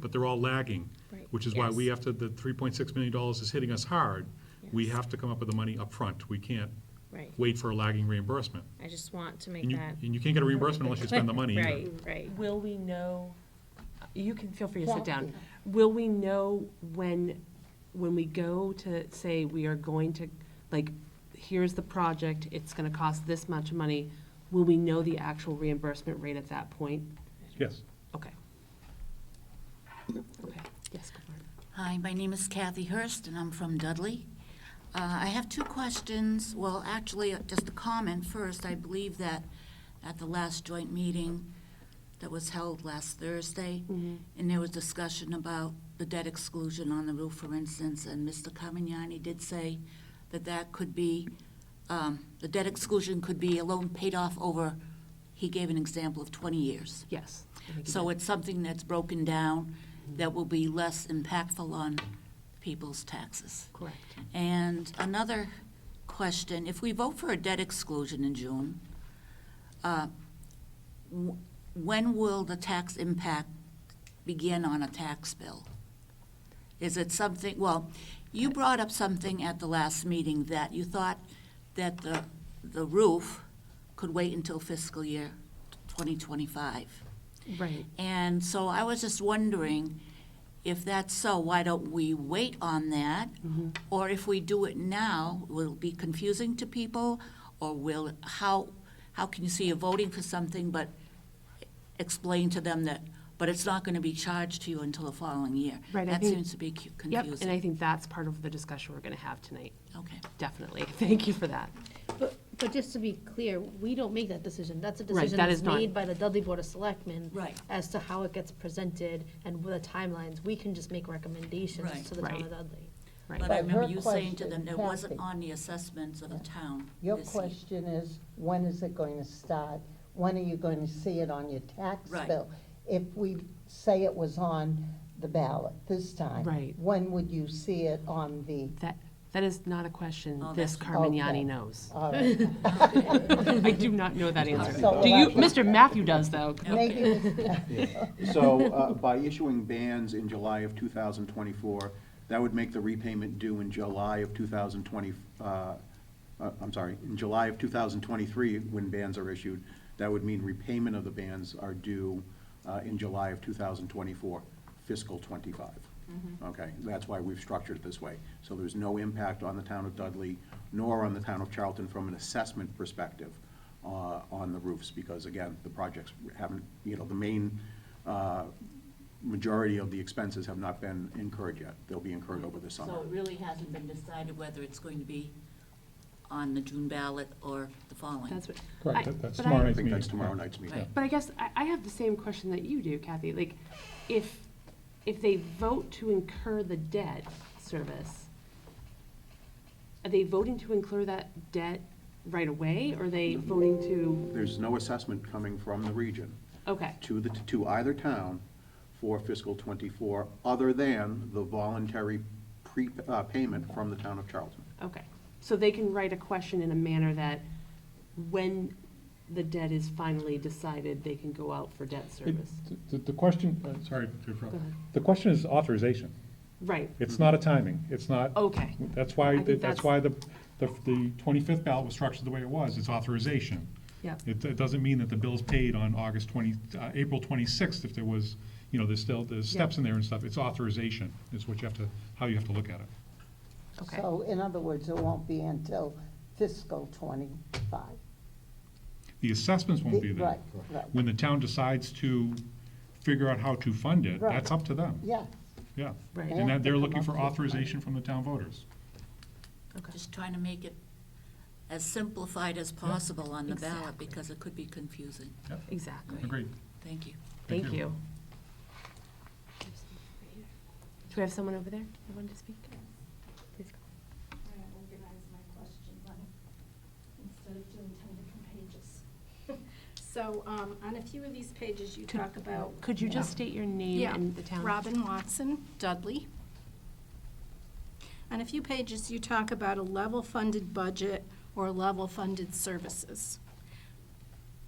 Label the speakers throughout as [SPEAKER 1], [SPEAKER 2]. [SPEAKER 1] but they're all lagging.
[SPEAKER 2] Right.
[SPEAKER 1] Which is why we
[SPEAKER 3] Yes.
[SPEAKER 1] have to, the three point six million dollars is hitting us hard. We have to come up with the money up front. We can't
[SPEAKER 2] Right.
[SPEAKER 1] wait for a lagging reimbursement.
[SPEAKER 2] I just want to
[SPEAKER 1] And
[SPEAKER 2] make
[SPEAKER 1] you,
[SPEAKER 2] that,
[SPEAKER 1] and you can't get a reimbursement unless you spend the money either.
[SPEAKER 2] right, right.
[SPEAKER 3] Will we know, you can feel free to sit down. Will we know when, when we go to say we are going to, like, here's the project, it's gonna cost this much money, will we know the actual reimbursement rate at that point?
[SPEAKER 1] Yes.
[SPEAKER 3] Okay. Okay, yes, go for it.
[SPEAKER 4] Hi, my name is Kathy Hurst, and I'm from Dudley. Uh, I have two questions, well, actually, uh, just a comment first. I believe that at the last joint meeting that was held last Thursday, and there was discussion about the debt exclusion on the roof, for instance, and Mr. Carmignani did say that that could be, um, the debt exclusion could be a loan paid off over, he gave an example of 20 years.
[SPEAKER 3] Yes. I think you
[SPEAKER 4] So
[SPEAKER 3] did.
[SPEAKER 4] it's something that's broken down, that will be less impactful on people's taxes.
[SPEAKER 3] Correct.
[SPEAKER 4] And another question, if we vote for a debt exclusion in June, uh, w- when will the tax impact begin on a tax bill? Is it something, well, you brought up something at the last meeting that you thought that the, the roof could wait until fiscal year 2025.
[SPEAKER 3] Right.
[SPEAKER 4] And so I was just wondering, if that's so, why don't we wait on that?
[SPEAKER 3] Mm-hmm.
[SPEAKER 4] Or if we do it now, will it be confusing to people? Or will, how, how can you see you're voting for something, but explain to them that, but it's not going to be charged to you until the following year?
[SPEAKER 3] Right, I
[SPEAKER 4] That
[SPEAKER 3] think-
[SPEAKER 4] seems to be cu-
[SPEAKER 3] Yep, and I
[SPEAKER 4] confusing.
[SPEAKER 3] think that's part of the discussion we're gonna have tonight,
[SPEAKER 4] Okay.
[SPEAKER 3] definitely. Thank you for that.
[SPEAKER 5] But, but just to be clear, we don't make that decision. That's a
[SPEAKER 3] Right,
[SPEAKER 5] decision
[SPEAKER 3] that
[SPEAKER 5] that's
[SPEAKER 3] is not-
[SPEAKER 5] made by the Dudley Board of Selectmen.
[SPEAKER 4] Right.
[SPEAKER 5] As to how it gets presented and the timelines. We can just make
[SPEAKER 4] Right.
[SPEAKER 5] recommendations to the town of
[SPEAKER 3] Right.
[SPEAKER 5] Dudley.
[SPEAKER 3] Right.
[SPEAKER 4] But I
[SPEAKER 6] But
[SPEAKER 4] remember
[SPEAKER 6] her
[SPEAKER 4] you saying to
[SPEAKER 6] question,
[SPEAKER 4] them, it wasn't
[SPEAKER 6] Kathy.
[SPEAKER 4] on the assessments of the town
[SPEAKER 6] Your
[SPEAKER 4] this e-, year.
[SPEAKER 6] question is, when is it going to start? When are you going to see it on your tax
[SPEAKER 4] Right.
[SPEAKER 6] bill? If we say it was on the ballot this time.
[SPEAKER 3] Right.
[SPEAKER 6] When would you see it on the,
[SPEAKER 3] That, that is not a question
[SPEAKER 4] Oh,
[SPEAKER 3] this
[SPEAKER 4] that's-
[SPEAKER 3] Carmignani
[SPEAKER 6] Okay.
[SPEAKER 3] knows.
[SPEAKER 6] all right,
[SPEAKER 3] I do not know that answer.
[SPEAKER 6] So
[SPEAKER 3] Do you,
[SPEAKER 6] we'll have
[SPEAKER 3] Mr. Matthew does, though.
[SPEAKER 6] maybe we
[SPEAKER 7] So uh, by issuing bans in July of 2024, that would make the repayment due in July of 2020, uh, uh, I'm sorry, in July of 2023, when bans are issued, that would mean repayment of the bans are due uh, in July of 2024, fiscal '25. Okay, that's why we've structured it this way. So there's no impact on the town of Dudley, nor on the town of Charlton from an assessment perspective uh, on the roofs, because again, the projects haven't, you know, the main uh, majority of the expenses have not been incurred yet. They'll be incurred over the summer.
[SPEAKER 4] So it really hasn't been decided whether it's going to be on the June ballot or the following?
[SPEAKER 3] That's what.
[SPEAKER 1] Correct,
[SPEAKER 3] I-
[SPEAKER 1] that- that's
[SPEAKER 3] but I-
[SPEAKER 1] tomorrow
[SPEAKER 7] I
[SPEAKER 1] night.
[SPEAKER 7] think that's tomorrow night's meeting.
[SPEAKER 4] Right.
[SPEAKER 3] But I guess I, I have the same question that you do, Kathy. Like, if, if they vote to incur the debt service, are they voting to incur that debt right away? Or are they voting to,
[SPEAKER 7] There's no assessment coming from the region
[SPEAKER 3] okay,
[SPEAKER 7] to the, to either town for fiscal '24, other than the voluntary pre, uh, payment from the town of Charlton.
[SPEAKER 3] okay. So they can write a question in a manner that when the debt is finally decided, they can go out for debt
[SPEAKER 8] It-
[SPEAKER 3] service.
[SPEAKER 8] The, the question, uh, sorry, to interrupt.
[SPEAKER 3] Go ahead.
[SPEAKER 8] the question is authorization.
[SPEAKER 3] Right,
[SPEAKER 8] It's not a timing, it's not.
[SPEAKER 3] Okay.
[SPEAKER 8] That's
[SPEAKER 3] I
[SPEAKER 8] why,
[SPEAKER 3] think that's-
[SPEAKER 8] that's why the, the the 25th ballot was structured the way it was, it's authorization.
[SPEAKER 3] Yep.
[SPEAKER 8] It, it doesn't mean that the bill's paid on August 20, uh, April 26th if there was, you know, there's still, there's steps in there and stuff. It's authorization is what you have to, how you have to look at it.
[SPEAKER 3] okay.
[SPEAKER 6] So in other words, it won't be until fiscal twenty-five.
[SPEAKER 8] The assessments won't be there.
[SPEAKER 6] Right, right,
[SPEAKER 8] When the town decides to figure out how to fund it,
[SPEAKER 6] Right.
[SPEAKER 8] that's up to them,
[SPEAKER 6] yeah.
[SPEAKER 8] yeah.
[SPEAKER 3] Right.
[SPEAKER 8] And that, they're looking for
[SPEAKER 6] Yeah.
[SPEAKER 8] authorization from the town voters.
[SPEAKER 4] Just trying to make it as simplified as possible on the ballot, because it could be confusing.
[SPEAKER 3] Exactly.
[SPEAKER 8] Agreed.
[SPEAKER 4] Thank you.
[SPEAKER 3] Thank
[SPEAKER 8] Thank you.
[SPEAKER 3] you. Do we have someone over there that wanted to speak? Please go.
[SPEAKER 9] I organize my question by, instead of doing ten different pages. So, um, on a few of these pages, you talk about.
[SPEAKER 3] Could you just state your name
[SPEAKER 9] Yeah,
[SPEAKER 3] and the town?
[SPEAKER 9] Robin Watson, Dudley. On a few pages, you talk about a level-funded budget or level-funded services.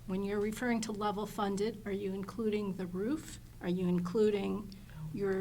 [SPEAKER 9] When you're referring to level-funded, are you including the roof? Are you including your